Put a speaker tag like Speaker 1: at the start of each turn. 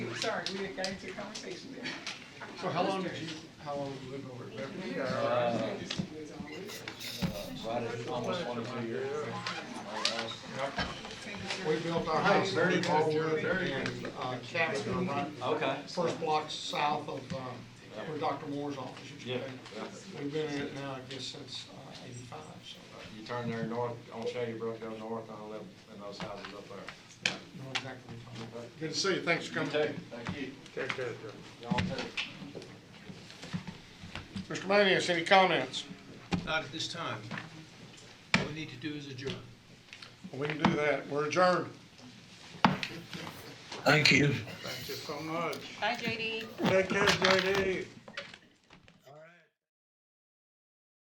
Speaker 1: sorry, we didn't get into a conversation there.
Speaker 2: So how long did you, how long did you live over at Beverly?
Speaker 3: Uh, Right, at almost one or two years.
Speaker 2: We built our house
Speaker 3: Very
Speaker 2: in
Speaker 3: good,
Speaker 2: Ballwood
Speaker 3: very good.
Speaker 2: and uh, Catskills, right,
Speaker 3: Okay.
Speaker 2: first block south of um, where Dr. Moore's office used to
Speaker 3: Yeah.
Speaker 2: be. We've been in it now, I guess, since uh, eighty-five, so
Speaker 4: You turn there north, on Shady Brook, go north on eleven, and those houses up there.
Speaker 2: uh, you know exactly what I'm talking about. Good to see you, thanks for coming.
Speaker 3: Thank you.
Speaker 4: Take care, Y'all take.
Speaker 2: Mr. Manius, any comments?
Speaker 5: Not at this time. All we need to do is adjourn.
Speaker 2: We can do that, we're adjourned.
Speaker 6: Thank you.
Speaker 2: Thank you so much.
Speaker 7: Bye, JD.
Speaker 2: Take care, JD.